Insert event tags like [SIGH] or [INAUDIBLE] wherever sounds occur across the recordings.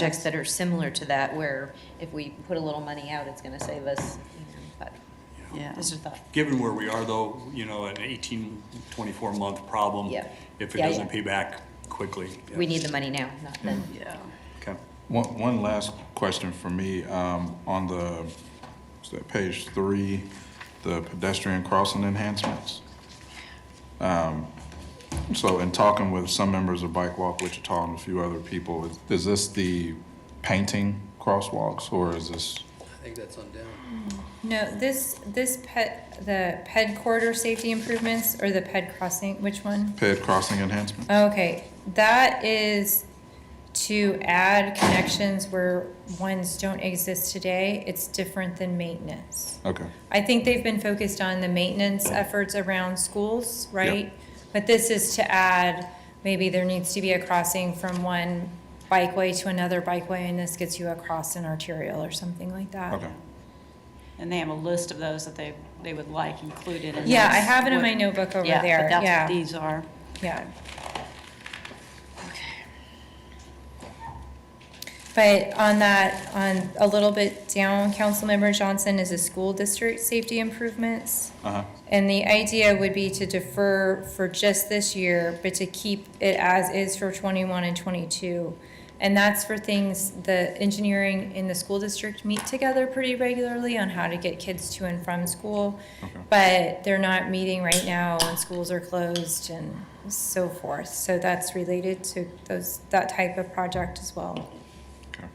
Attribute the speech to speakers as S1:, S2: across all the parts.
S1: projects that are similar to that, where if we put a little money out, it's going to save us, you know, but
S2: Yeah.
S1: just a thought.
S3: Given where we are though, you know, an 18, 24-month problem.
S1: Yeah.
S3: If it
S1: Yeah,
S3: doesn't
S1: yeah.
S3: pay back quickly.
S1: We need the money now, not then.
S2: Yeah.
S3: Okay.
S4: One, one last question for me, um, on the, is that page three, the pedestrian crossing enhancements. Um, so in talking with some members of Bike Walk Wichita and a few other people, is- is this the painting crosswalks or is this?
S5: I think that's on down.
S6: No, this, this pet, the ped corridor safety improvements or the ped crossing, which one?
S4: Ped crossing enhancement.
S6: Okay, that is to add connections where ones don't exist today. It's different than maintenance.
S4: Okay,
S6: I think they've been focused on the maintenance efforts around schools, right? But this is to add, maybe there needs to be a crossing from one bikeway to another bikeway, and this gets you across an arterial or something like that.
S4: okay.
S2: And they have a list of those that they, they would like included in
S6: Yeah, I
S2: this.
S6: have it in my
S2: Would-
S6: notebook over
S2: Yeah, but
S6: there,
S2: that's what
S6: yeah.
S2: these are.
S6: Yeah. But on that, on a little bit down, Councilmember Johnson is a school district safety improvements.
S4: Uh-huh,
S6: And the idea would be to defer for just this year, but to keep it as is for twenty-one and twenty-two. And that's for things the engineering and the school district meet together pretty regularly on how to get kids to and from school. But they're not meeting right now and schools are closed and so forth. So that's related to those, that type of project as well.
S4: okay.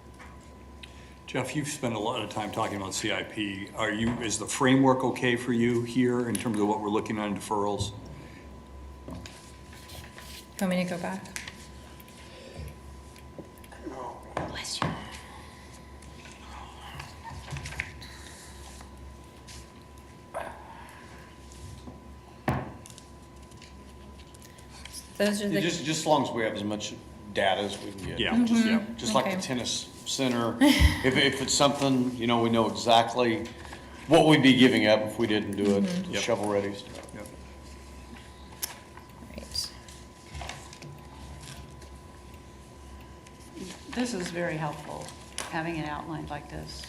S3: Jeff, you've spent a lot of time talking about CIP. Are you, is the framework okay for you here in terms of what we're looking at in deferrals?
S6: Want me to go back? Those are the.
S7: Just, just as long as we have as much data as we can get.
S3: Yeah, just- yeah.
S1: Mm-hmm.
S7: Just like
S6: Okay.
S7: the tennis center, if, if it's something, you know, we know exactly what we'd be giving up if we didn't do it,
S3: Yep.
S7: shovel-ready stuff.
S3: Yep.
S6: Right.
S2: This is very helpful, having it outlined like this.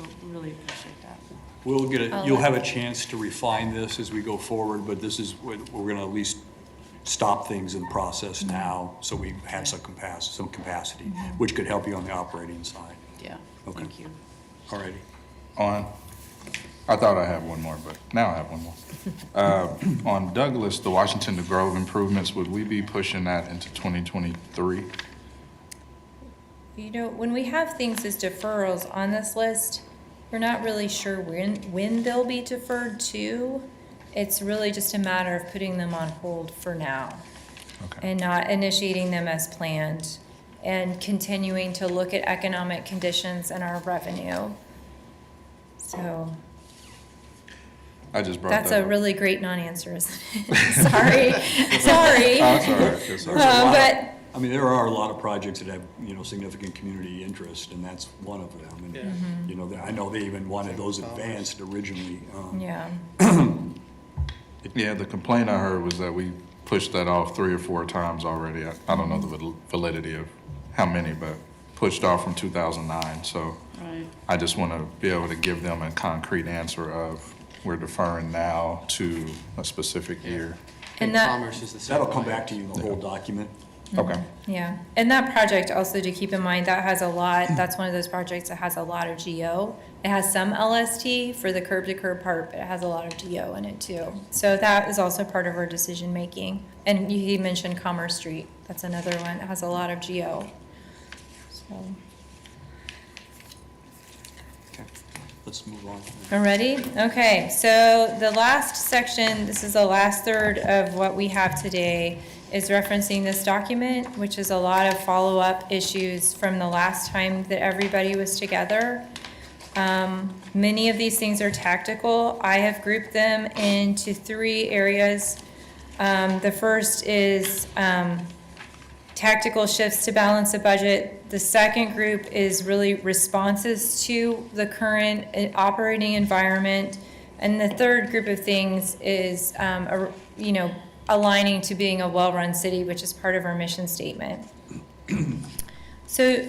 S2: We Really appreciate that.
S3: We'll get, a-
S6: I'll
S3: you'll
S6: let-
S3: have a chance to refine this as we go forward, but this is, what- we're gonna at least stop things in process
S1: Mm-hmm.
S3: now, so we have some capacity, some capacity, which could help you on the operating side.
S2: Yeah,
S3: Okay.
S2: thank you.
S3: All righty.
S4: on, I thought I had one more, but now I have one more. Uh, On Douglas, the Washington to Grove improvements, would we be pushing that into 2023?
S6: You know, when we have things as deferrals on this list, we're not really sure when, when they'll be deferred to. It's really just a matter of putting them on hold for now
S4: Okay,
S6: and not initiating them as planned and continuing to look at economic conditions and our revenue. So
S4: I just brought that up.
S6: that's a really great non-answer, isn't [LAUGHS] it? Sorry, sorry.
S4: Oh, it's all right, it's all right.
S6: Uh,
S3: There's a lot of-
S6: but-
S3: I mean, there are a lot of projects that have, you know, significant community interest, and that's one of them.
S6: Mm-hmm.
S3: And, you know, I know they even wanted those advanced originally. um,
S6: Yeah,
S4: Yeah, the complaint I heard was that we pushed that off three or four times already. I I don't know the val- validity of how many, but pushed off from 2009. So
S2: Right.
S4: I just want to be able to give them a concrete answer of, we're deferring now to a specific year.
S6: And
S5: Big
S6: that-
S5: Commerce is the same.
S3: That'll come
S5: way.
S3: back to you in the whole document.
S4: Okay.
S6: yeah. And that project also to keep in mind, that has a lot, that's one of those projects that has a lot of GO. It has some LST for the curb to curb part, but it has a lot of GO in it too. So that is also part of our decision making. And you- he mentioned Commerce Street, that's another one, it has a lot of GO. So,
S3: Let's move on.
S6: Already? Okay, so the last section, this is the last third of what we have today, is referencing this document, which is a lot of follow-up issues from the last time that everybody was together. Um, many of these things are tactical. I have grouped them into three areas. Um, the first is, um, tactical shifts to balance the budget. The second group is really responses to the current uh, operating environment. And the third group of things is, um, a- you know, aligning to being a well-run city, which is part of our mission statement. [CLEARS THROAT] So